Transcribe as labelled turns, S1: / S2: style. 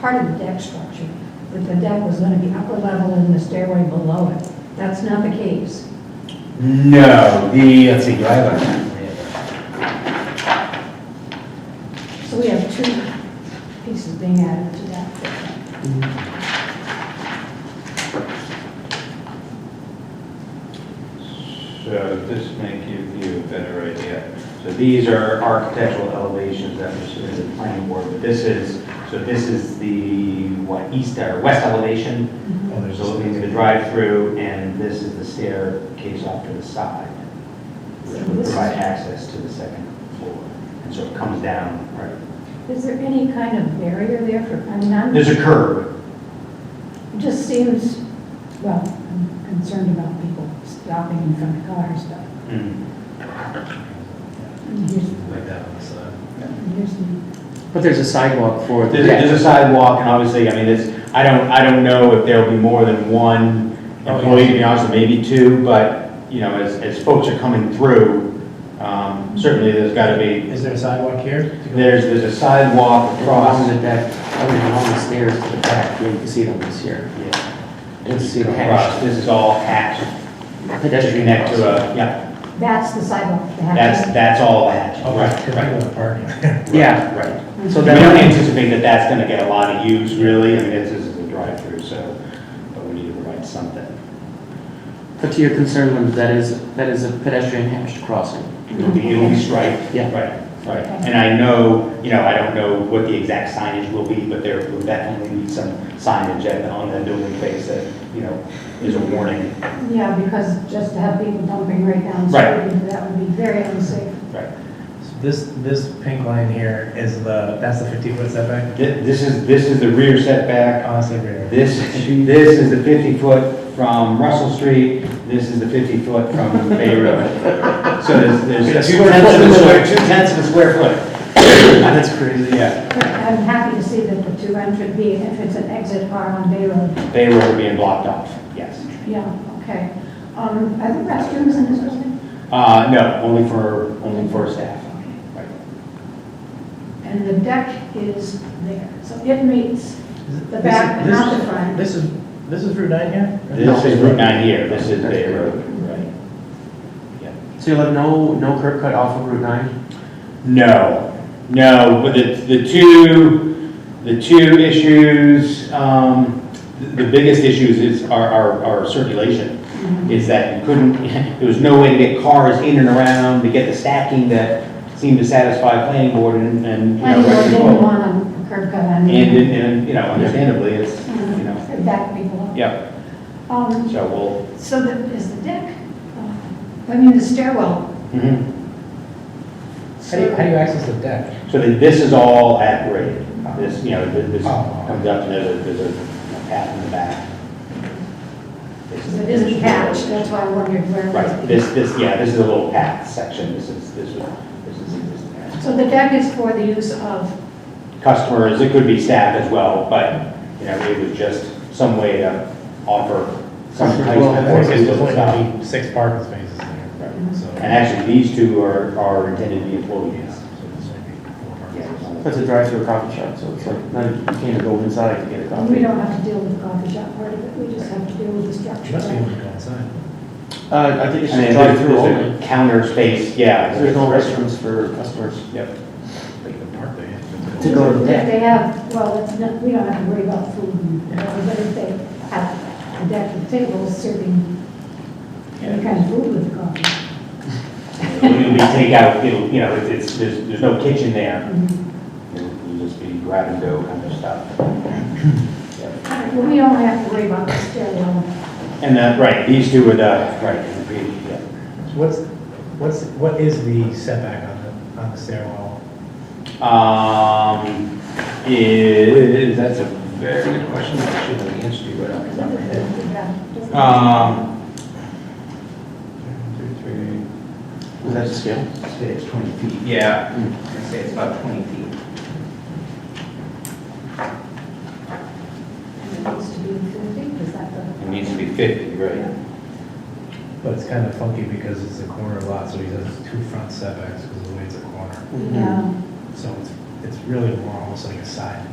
S1: part of the deck structure, that the deck was gonna be upper level and the stairway below it. That's not the case.
S2: No, the, let's see, do I have a,
S1: So we have two pieces being added to that.
S2: so this may give you a better idea. So these are architectural elevations that were submitted to the planning board, but this is, so this is the, what, east or west elevation?
S3: Oh, there's
S2: So looking at the drive-through, and this is the staircase off to the side, which would provide access to the second floor. And so it comes down, right?
S1: Is there any kind of barrier there for, I mean, I'm,
S2: There's a curb,
S1: it just seems, well, I'm concerned about people stopping in front of cars, but
S2: Like
S1: here's,
S2: that on the side.
S1: here's the
S4: But there's a sidewalk for the
S2: There's, there's
S4: deck.
S2: a sidewalk, and obviously, I mean, it's, I don't, I don't know if there'll be more than one
S4: Oh,
S2: employee,
S4: yeah.
S2: to be honest, or maybe two, but, you know, as, as folks are coming through, um, certainly there's gotta be,
S3: Is there a sidewalk here?
S2: there's, there's a sidewalk
S4: Across
S2: across.
S4: the deck, I mean, along the stairs to the back, you can see them this year.
S2: Yeah.
S4: You can see them
S2: Across,
S4: hatched.
S2: this is all hatched, to
S4: Pedestrian
S2: connect to
S4: crossing.
S2: a, yeah,
S1: That's the sidewalk. that
S2: that's,
S1: has-
S2: that's all hatched.
S3: Oh, right, because I
S2: Right,
S3: go to parking.
S4: Yeah,
S2: right.
S4: so
S2: We don't
S4: then,
S2: anticipate that that's gonna get a lot of use, really, I mean, this is a drive-through, so, but we need to provide something.
S4: but to your concern, Linda, that is, that is a pedestrian hatched crossing.
S2: It'll be, it'll be striped.
S4: Yeah.
S2: Right, right. And I know, you know, I don't know what the exact signage will be, but there will definitely be some signage at- on the building face that, you know, is a warning.
S1: Yeah, because just to have people dumping right down
S2: Right.
S1: the street, that would be very unsafe.
S2: Right.
S3: So This, this pink line here is the, that's the 50-foot setback?
S2: Thi- This is, this is the rear setback.
S3: Honestly, rear.
S2: This, this is the 50-foot from Russell Street. This is the 50-foot from Bay Road. So there's, there's two tenths of a square, two tenths of a square foot. That's crazy. Yeah.
S1: But I'm happy to see that the two entrance, the entrance and exit are on Bay Road.
S2: Bay Road being blocked off, yes.
S1: Yeah, okay. Um, Are there restrooms in this building?
S2: Uh, no, only for, only for staff. Right.
S1: And the deck is there, so it meets
S3: Is it-
S1: the back, but
S3: this-
S1: not the front.
S3: This is, this is Route 9 here?
S2: This is Route 9 here, this is Bay Road.
S1: Right.
S4: So you'll have no, no curb cut off of Route 9?
S2: No, no, but the, the two, the two issues, um, the the biggest issues is, our our our circulation.
S1: Mm-hmm.
S2: Is that you couldn't, there was no way to get cars in and around, to get the stacking that seemed to satisfy planning board and, and, you know,
S1: And they
S2: rec
S1: didn't
S2: control.
S1: want a curb cut on Uh,
S2: And,
S1: it.
S2: and, you know, understandably, it's, you know,
S1: Back people.
S2: yeah,
S1: Um,
S2: so we'll,
S1: So the- is the deck, uh, I mean, the stairwell.
S2: mhm.
S3: How do you, how do you access the deck?
S2: So then this is all at grade, this, you know, this this
S3: Oh.
S2: comes up, and there's a, there's a path in the back.
S1: Because it isn't hatched, that's why I wondered where it
S2: Right,
S1: was.
S2: this, this, yeah, this is a little path section, this is, this is, this is, this is.
S1: So the deck is for the use of,
S2: Customers, it could be staff as well, but, you know, it was just some way to offer some type
S4: Well,
S2: of.
S3: I think
S2: work
S3: There's
S2: to
S3: only
S2: stop.
S3: gonna be six parking spaces there,
S1: Mm-hmm.
S2: Right.
S3: so.
S2: And actually, these two are, are intended to be
S3: Yeah,
S2: employees.
S3: so this might be four parking spaces.
S2: Yeah.
S4: That's a drive-through coffee shop, so it's like, not- you can't go inside to get a coffee.
S1: we don't have to deal with the coffee shop part of it, we just have to deal with the
S3: You must be
S1: structure.
S3: able to go inside.
S4: Uh, I think it's
S2: And then there's-
S4: just drive-through
S2: there's a
S4: only.
S2: Counter space, yeah.
S4: There's no restrooms for customers.
S2: Yep.
S3: They can park there.
S4: To go to the
S1: If
S4: deck.
S1: they have, well, it's not, we don't have to worry about food, and whatever, but if they have a deck of tables serving any kind of food with the coffee.
S2: It'll be takeout, it'll, you know, it's- it's, there's, there's no kitchen there.
S1: Mhm.
S2: It'll just be grab and go kind of stuff.
S1: All right, Well, we don't have to worry about the stairwell.
S2: And that, right, these two are the, right, and the green, yeah.
S3: So What's, what's, what is the setback on the, on the stairwell?
S2: Um, is, that's a very good question, I should have answered you right off the top of my head. Um, two, three,
S4: Is that the scale?
S2: I'd say it's 20 feet. Yeah.
S4: Hmm.
S2: I'd say it's about 20 feet.
S1: And It needs to be fifty, is that the?
S2: It needs to be 50, right?
S3: But it's kind of funky because it's a corner lot, so he has two front setbacks because of the way it's a corner.
S4: Mhm.
S1: Yeah.
S3: So it's, it's really more almost like a side